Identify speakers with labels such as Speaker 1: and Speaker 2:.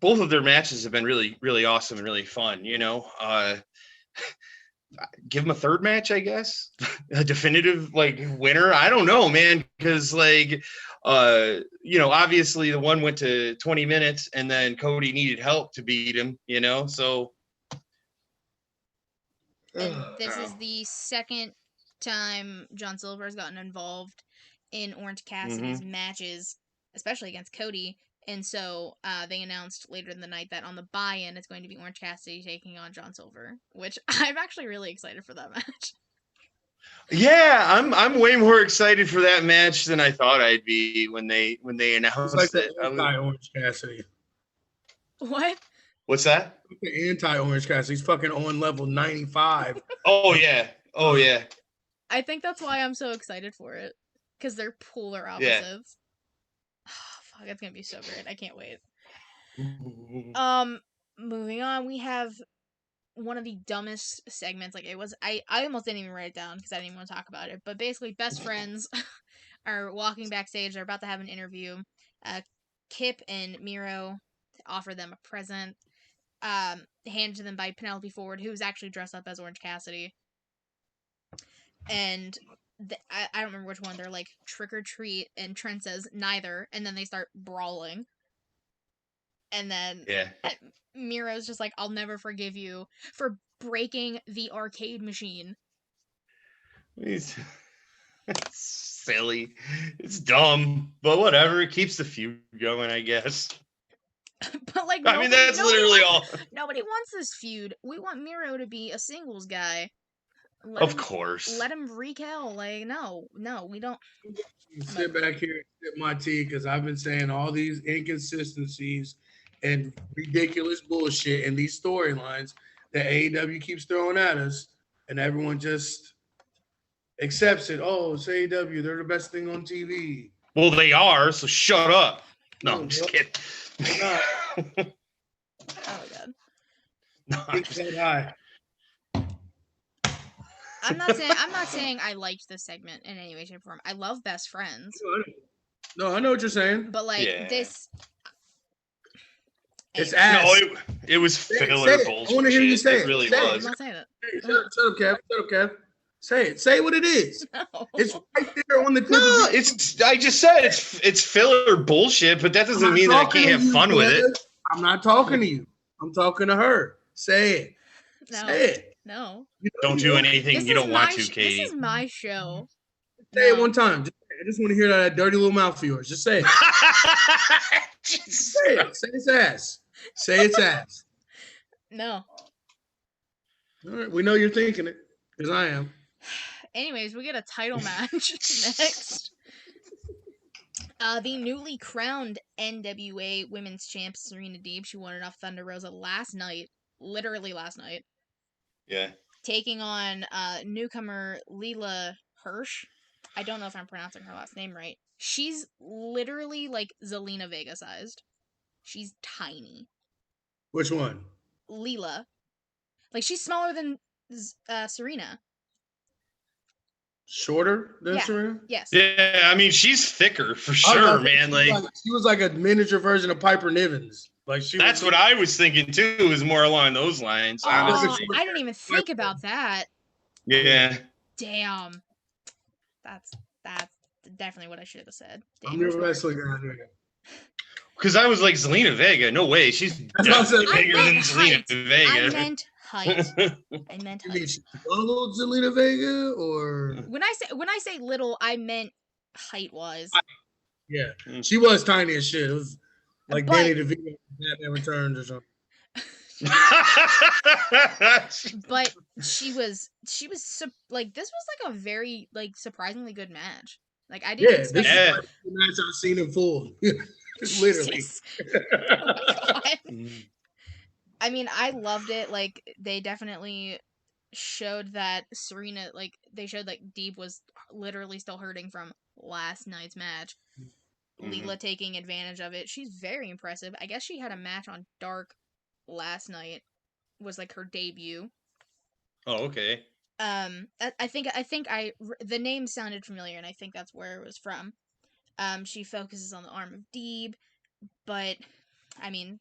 Speaker 1: both of their matches have been really, really awesome and really fun. You know, uh, give them a third match, I guess, a definitive like winner. I don't know, man, because like, uh, you know, obviously the one went to 20 minutes, and then Cody needed help to beat him. You know, so.
Speaker 2: And
Speaker 1: Ugh,
Speaker 2: this is
Speaker 1: ow.
Speaker 2: the second time John Silver has gotten involved in Orange Cassidy's
Speaker 1: Mm-hmm.
Speaker 2: matches, especially against Cody. And so uh, they announced later in the night that on the buy-in, it's going to be Orange Cassidy taking on John Silver, which I'm actually really excited for that match.
Speaker 1: Yeah, I'm I'm way more excited for that match than I thought I'd be when they when they announced
Speaker 3: It's like
Speaker 1: it. Um,
Speaker 3: the
Speaker 1: I'm-
Speaker 3: anti-Orange Cassidy.
Speaker 2: what?
Speaker 1: what's that?
Speaker 3: The anti-Orange Cassidy. He's fucking on level 95.
Speaker 1: Oh yeah, oh yeah.
Speaker 2: I think that's why I'm so excited for it because they're polar
Speaker 1: Yeah.
Speaker 2: opposites. fuck, that's gonna be so great! I can't wait.
Speaker 3: Mm-hmm.
Speaker 2: Um, moving on, we have one of the dumbest segments. Like it was, I I almost didn't even write it down because I didn't want to talk about it. But basically, best friends are walking backstage. They're about to have an interview. Uh, Kip and Miro offer them a present, um, handed to them by Penelope Ford, who's actually dressed up as Orange Cassidy. And th- I, I don't remember which one. They're like trick or treat, and Trent says neither, and then they start brawling. And then
Speaker 1: Yeah.
Speaker 2: Miro's just like, I'll never forgive you for breaking the arcade machine.
Speaker 1: It's, it's silly. It's dumb, but whatever. It keeps the feud going, I guess.
Speaker 2: but like,
Speaker 1: I mean,
Speaker 2: nobody-
Speaker 1: that's
Speaker 2: nobody
Speaker 1: literally
Speaker 2: wants-
Speaker 1: all.
Speaker 2: Nobody wants this feud. We want Miro to be a singles guy. Let
Speaker 1: Of
Speaker 2: him,
Speaker 1: course.
Speaker 2: Let him rekindle. Like, no, no, we don't.
Speaker 3: Sit back here and sip my tea because I've been saying all these inconsistencies and ridiculous bullshit in these storylines that AEW keeps throwing at us, and everyone just accepts it. Oh, it's AEW. They're the best thing on TV.
Speaker 1: Well, they are. So shut up. No, I'm just kidding.
Speaker 3: Nah,
Speaker 2: Oh my god.
Speaker 1: No, I'm
Speaker 3: it's
Speaker 1: just-
Speaker 3: that high.
Speaker 2: I'm not saying. I'm not saying I liked this segment in any way, shape, or form. I love Best Friends,
Speaker 3: No, I know what you're saying.
Speaker 2: but like
Speaker 1: Yeah.
Speaker 2: this.
Speaker 3: It's
Speaker 2: Anyway,
Speaker 1: no,
Speaker 3: ass.
Speaker 1: it, it was
Speaker 3: it,
Speaker 1: filler
Speaker 3: say it. I
Speaker 1: bullshit.
Speaker 3: wanna hear you say
Speaker 1: it
Speaker 3: it,
Speaker 1: really
Speaker 3: say it.
Speaker 2: I'm
Speaker 1: was.
Speaker 2: not saying that.
Speaker 3: Hey, shut, up- shut up, Kev. Shut up, Kev. Say it. Say what it is.
Speaker 2: No.
Speaker 3: It's right there on the clip.
Speaker 1: No, it's I just said it's it's filler bullshit, but that
Speaker 3: I'm
Speaker 1: doesn't
Speaker 3: not
Speaker 1: mean that I
Speaker 3: talking
Speaker 1: can't
Speaker 3: to
Speaker 1: have
Speaker 3: you,
Speaker 1: fun with
Speaker 3: brother.
Speaker 1: it.
Speaker 3: I'm not talking to you. I'm talking to her. Say it. Say
Speaker 2: no.
Speaker 3: it.
Speaker 2: No.
Speaker 1: Don't do anything
Speaker 2: This
Speaker 1: you
Speaker 2: is
Speaker 1: don't want
Speaker 2: my
Speaker 1: to,
Speaker 2: sh-
Speaker 1: Katie.
Speaker 2: This is my show.
Speaker 3: Say it
Speaker 2: No.
Speaker 3: one time. Just say it. I just want to hear that dirty little mouth of yours. Just say it.
Speaker 1: Jesus
Speaker 3: Say
Speaker 1: Christ.
Speaker 3: it. Say its ass. Say its ass.
Speaker 2: No.
Speaker 3: All right. We know you're thinking it because I am.
Speaker 2: Anyways, we get a title match next. Uh, the newly crowned NWA Women's Champ Serena Deeb, she won it off Thunder Rosa last night, literally last night,
Speaker 1: Yeah.
Speaker 2: taking on uh, newcomer Leela Hirsch. I don't know if I'm pronouncing her last name right. She's literally like Zelina Vega sized. She's tiny.
Speaker 3: Which one?
Speaker 2: Leela. Like she's smaller than Z- uh, Serena.
Speaker 3: Shorter than
Speaker 2: Yeah.
Speaker 3: Serena?
Speaker 2: Yes.
Speaker 1: Yeah, I mean she's thicker for
Speaker 3: I was
Speaker 1: sure,
Speaker 3: about to say,
Speaker 1: man.
Speaker 3: she
Speaker 1: Like
Speaker 3: was she was like a miniature version of Piper Nivens. Like she.
Speaker 1: that's
Speaker 3: was,
Speaker 1: what I was thinking too, is more along those lines,
Speaker 3: Oh,
Speaker 2: Aw,
Speaker 1: honestly.
Speaker 2: I didn't even think about that.
Speaker 1: Yeah.
Speaker 2: Damn. That's that's definitely what I should have said.
Speaker 3: I'm
Speaker 2: Damn,
Speaker 3: your
Speaker 2: it's hard.
Speaker 3: wrestling guy. here.
Speaker 1: Cause I was like Zelina Vega, no way, she's
Speaker 3: what I said.
Speaker 1: definitely
Speaker 2: I
Speaker 1: bigger than
Speaker 2: meant
Speaker 1: Zelina
Speaker 2: height. I
Speaker 1: Vega.
Speaker 2: meant height. I meant
Speaker 3: You mean
Speaker 2: height.
Speaker 3: she's little Zelina Vega or?
Speaker 2: When I say when I say little, I meant height wise.
Speaker 3: Yeah,
Speaker 1: Mm.
Speaker 3: she was tiny as shit. It was like
Speaker 2: But-
Speaker 3: Danny DeVito in Batman Returns or something.
Speaker 2: But she was she was su- like this was like a very like surprisingly good match. Like I didn't
Speaker 3: Yeah, this
Speaker 2: expect
Speaker 3: is
Speaker 1: Yeah.
Speaker 3: like the match I've seen in full. Literally,
Speaker 2: Jesus. Oh my God.
Speaker 1: Mm.
Speaker 2: I mean, I loved it. Like they definitely showed that Serena, like they showed like Deeb was literally still hurting from last night's match.
Speaker 1: Mhm.
Speaker 2: Leela taking advantage of it. She's very impressive. I guess she had a match on Dark last night. Was like her debut.
Speaker 1: oh, okay.
Speaker 2: Um, I, I think I think I r- the name sounded familiar, and I think that's where it was from. Um, she focuses on the arm of Deeb, but I mean,